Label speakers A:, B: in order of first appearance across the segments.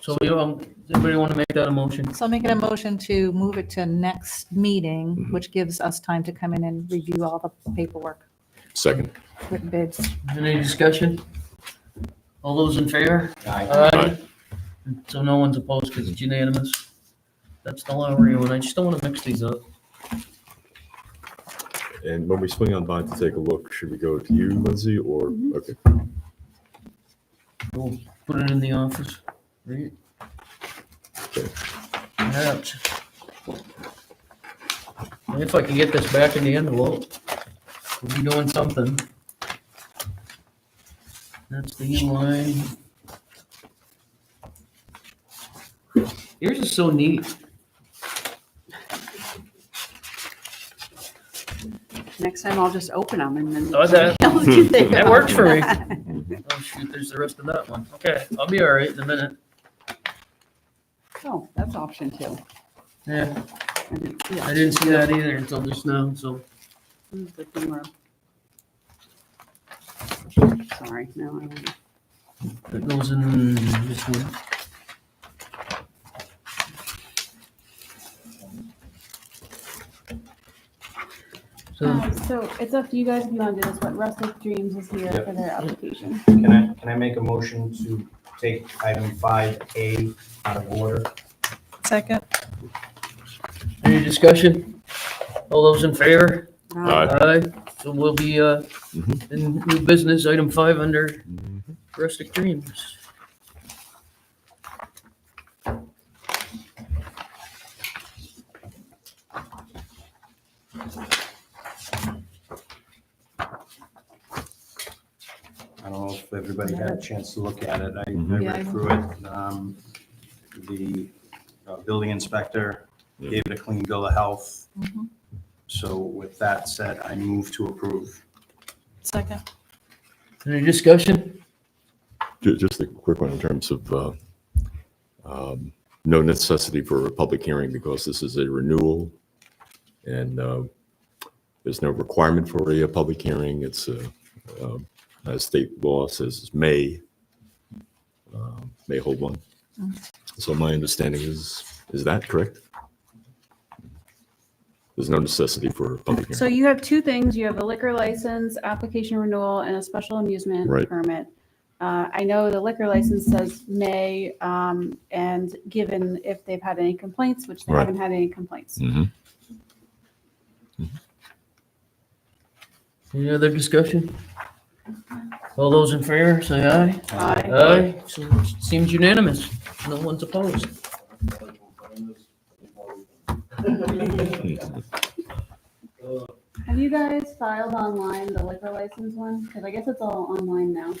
A: So we, um, does anybody want to make that a motion?
B: So I'm making a motion to move it to next meeting, which gives us time to come in and review all the paperwork,
C: Second.
B: written bids.
A: Any discussion? All those in favor?
C: Aye.
A: So no one's opposed because it's unanimous. That's the law we're doing. I just don't want to mix these up.
C: And when we swing on by to take a look, should we go to you, Lindsay, or, okay,
A: We'll put it in the office. Read it. Perhaps. If I can get this back in the envelope, we'll be doing something. That's the inline. Yours is so neat.
D: Next time I'll just open them and then.
A: Oh, that-
D: That
A: that works for me. Oh, shoot, there's the rest of that one. Okay, I'll be all right in a minute.
D: Oh, that's option two.
A: Yeah,
D: I didn't see
A: I
D: that.
A: didn't see that either until just now, so.
D: Mm, but they were- Sorry, no, I won't.
A: That goes in this one. So,
E: Um, so it's up to you guys if you want to do this, but Rustic Dreams is here for their application.
F: Can I, can I make a motion to take item five A out of order?
B: Second.
A: any discussion? All those in favor?
C: Aye.
A: Aye. So we'll be, uh,
C: Mhm.
A: in new business, item five under rustic dreams.
F: I don't know if everybody had a chance to look at it. I, I
G: Mm-hmm.
C: Mhm.
D: Yeah, I
F: read through it. Um, The uh, building inspector
C: Yeah.
F: gave it a clean bill of health.
A: Mm-hmm.
B: Mhm.
F: So with that said, I move to approve.
B: Second.
A: Any discussion?
C: Ju- just a quick one in terms of, uh, um, no necessity for a public hearing because this is a renewal and, uh, there's no requirement for a, public hearing. It's, uh, um, as state law says, it's may, um, may hold one. So my understanding is, is that correct? There's no necessity for a public
E: So
C: hearing.
E: you have two things. You have a liquor license, application renewal, and a special amusement
C: Right.
E: permit. Uh, I know the liquor license says may, um, and given if they've had any complaints, which they
C: Right.
E: haven't had any complaints.
C: Mhm.
A: Any other discussion? All those in favor, say aye.
E: Aye.
A: Aye, so it seems unanimous. No one's opposed.
E: Have you guys filed online the liquor license one? Because I guess it's all online now.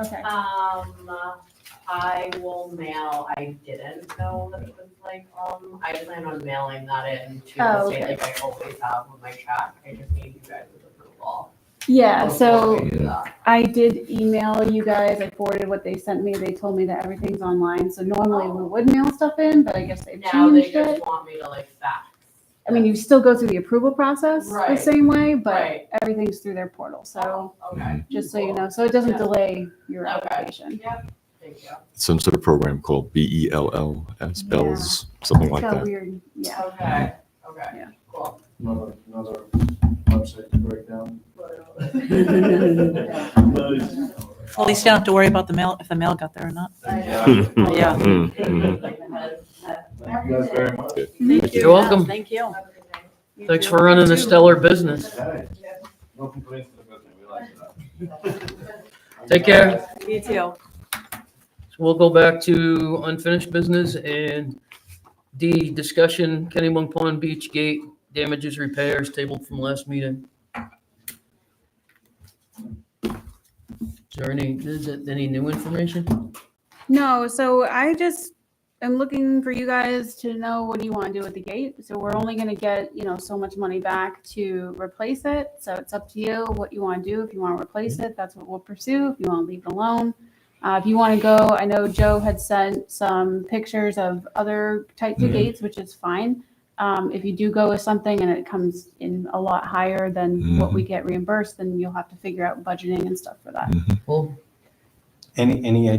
E: Okay.
H: Um, I will mail, I didn't know that it was like, um, I plan on mailing that in to the
E: Oh,
H: state
E: okay.
H: like I always have with my check. I just need you guys' approval. Um,
E: Yeah, so
H: before I do that.
E: I did email you guys. I forwarded what they sent me. They told me that everything's online. So normally we would mail stuff in, but I guess they've
H: Now they
E: changed
H: just
E: it.
H: want me to like fax.
E: I mean, you still go through the approval process the
H: Right.
E: same way, but
H: Right.
E: everything's through their portal. So
H: Okay,
E: just so you know, so it doesn't
H: Yeah.
E: delay your
H: Okay.
E: application.
H: yep, thank you.
C: Some sort of program called B E L L S, bells, something like
E: It's got
C: that.
E: weird. Yeah.
H: Okay, okay,
E: Yeah.
H: cool.
G: Another, another website to break down.
B: At least you don't have to worry about the mail, if the mail got there or not.
H: Yeah.
C: Mm,
H: mm-hmm.
C: mm.
G: Thank you guys very much.
A: You're welcome.
D: Thank you.
A: Thanks for running a stellar business.
G: Hey, no complaints to the business, we like that.
A: Take care.
D: You too.
A: So We'll go back to unfinished business and D, discussion Kennybunk Pond Beach Gate damages repairs tabled from last meeting. Is there any, is it any new information?
E: No, so I just am looking for you guys to know what do you want to do with the gate. So we're only going to get, you know, so much money back to replace it. So it's up to you what you want to do. If you want to replace it, that's what we'll pursue. If you want to leave it alone. Uh, if you want to go, I know Joe had sent some pictures of other types of
C: Mhm.
E: gates, which is fine. Um, if you do go with something and it comes in a lot higher than what we
C: Mm-hmm.
E: get reimbursed, then you'll have to figure out budgeting and stuff for that.
A: Well,
F: Any, any